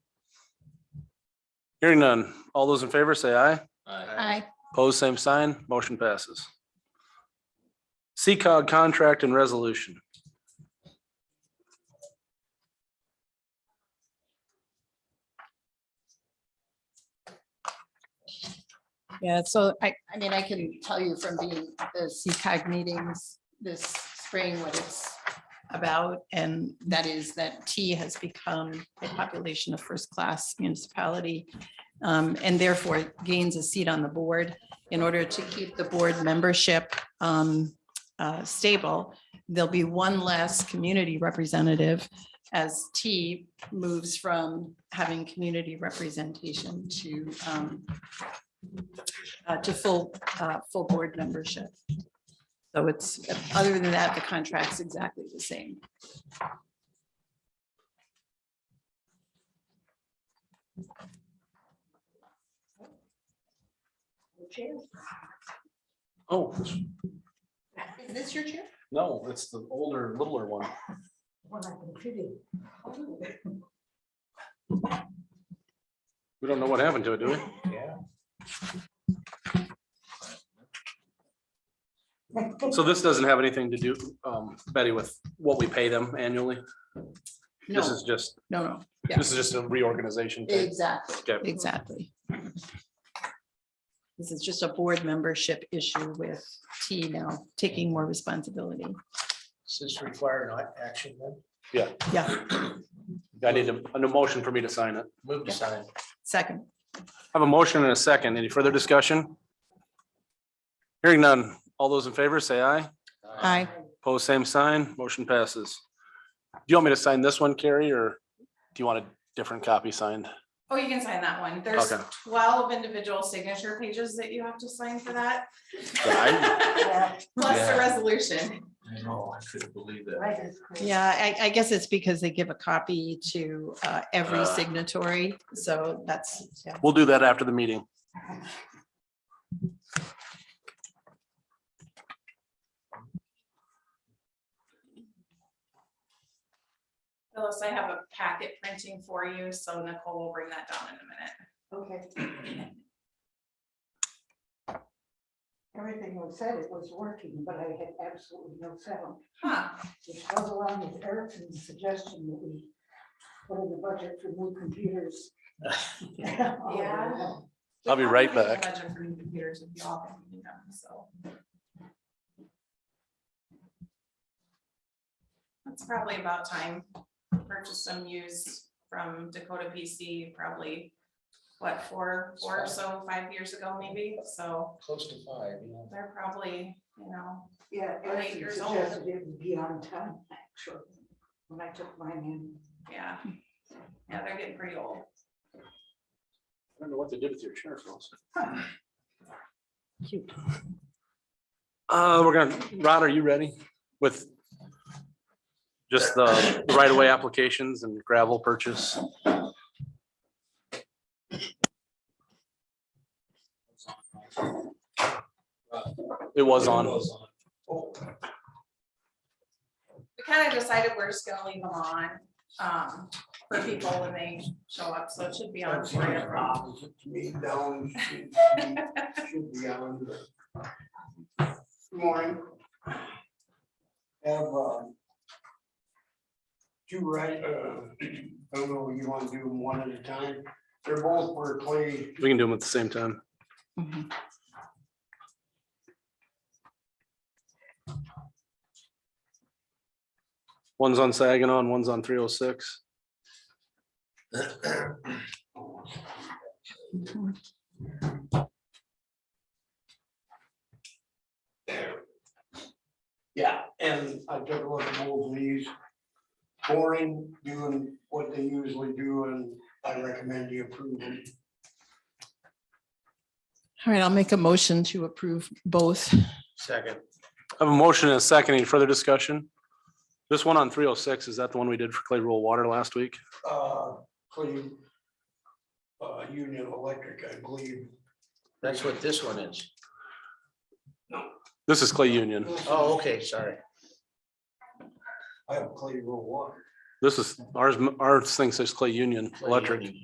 Hearing none. All those in favor say aye. Aye. Pose same sign. Motion passes. CCOG contract and resolution. Yeah, so I, I mean, I can tell you from being at the CCAG meetings this spring what it's about. And that is that T has become a population of first-class municipality. um, And therefore gains a seat on the board. In order to keep the board membership um, uh, stable, there'll be one less community representative as T moves from having community representation to um, uh, to full, uh, full board membership. So it's, other than that, the contract's exactly the same. Oh, Is this your chair? no, it's the older, littler one. We don't know what happened to it, do we? So this doesn't have anything to do, um, Betty, with what we pay them annually? No, This is just, no, no, Yeah. this is just a reorganization thing. exactly, Okay. exactly. This is just a board membership issue with T now taking more responsibility. Does this require not action then? Yeah, I need a, an emotion for me to sign it. Move to sign. second. I have a motion and a second. Any further discussion? Hearing none. All those in favor say aye. Aye. Pose same sign. Motion passes. Do you want me to sign this one, Carrie, or do you want a different copy signed? Oh, you can sign that one. There's Okay. twelve individual signature pages that you have to sign for that. Plus Yeah. the resolution. I know, I couldn't believe that. Yeah, I, I guess it's because they give a copy to uh, every Uh. signatory, so that's, yeah. We'll do that after the meeting. Phyllis, I have a packet printing for you, so Nicole will bring that down in a minute. Okay. Everything was said, it was working, but I had absolutely no sound, Huh, which goes along with Erickson's suggestion that we put in the budget for new computers. Yeah. I'll be right back. Budget for new computers if you all can do them, so. That's probably about time. Purchase some used from Dakota PC, probably, what, four, four or so, five years ago maybe, so Close to five, you know. they're probably, you know, Yeah, Eight Erickson years old. suggested it would be on time, actually, when I took mine in. yeah. Yeah, they're getting pretty old. I don't know what they did with your chair, Phil. Cute. Uh, we're gonna, Rod, are you ready with just the right-of-way applications and gravel purchase? It was on. Oh, we kind of decided we're just gonna leave them on, um, for people when they show up, so it should be on that's three or off. fine. Me down. should- should be on the- Morning. Have, um, two right, uh, I don't know, you want to do them one at a time? They're both Berkeley, We can do them at the same time. Mhm. One's on Saginaw and one's on three oh six. Yeah, and I took a look at both of these. Boring, doing what they usually do, and I recommend you approve them. All right, I'll make a motion to approve both. Second. I have a motion and a second. Any further discussion? This one on three oh six, is that the one we did for Clay Rural Water last week? Uh, clean. Uh, Union Electric, I believe. That's what this one is. This is Clay Union. Oh, okay, sorry. I have Clay Rural Water. This is ours, ours thing says Clay Union Clay Electric. Union.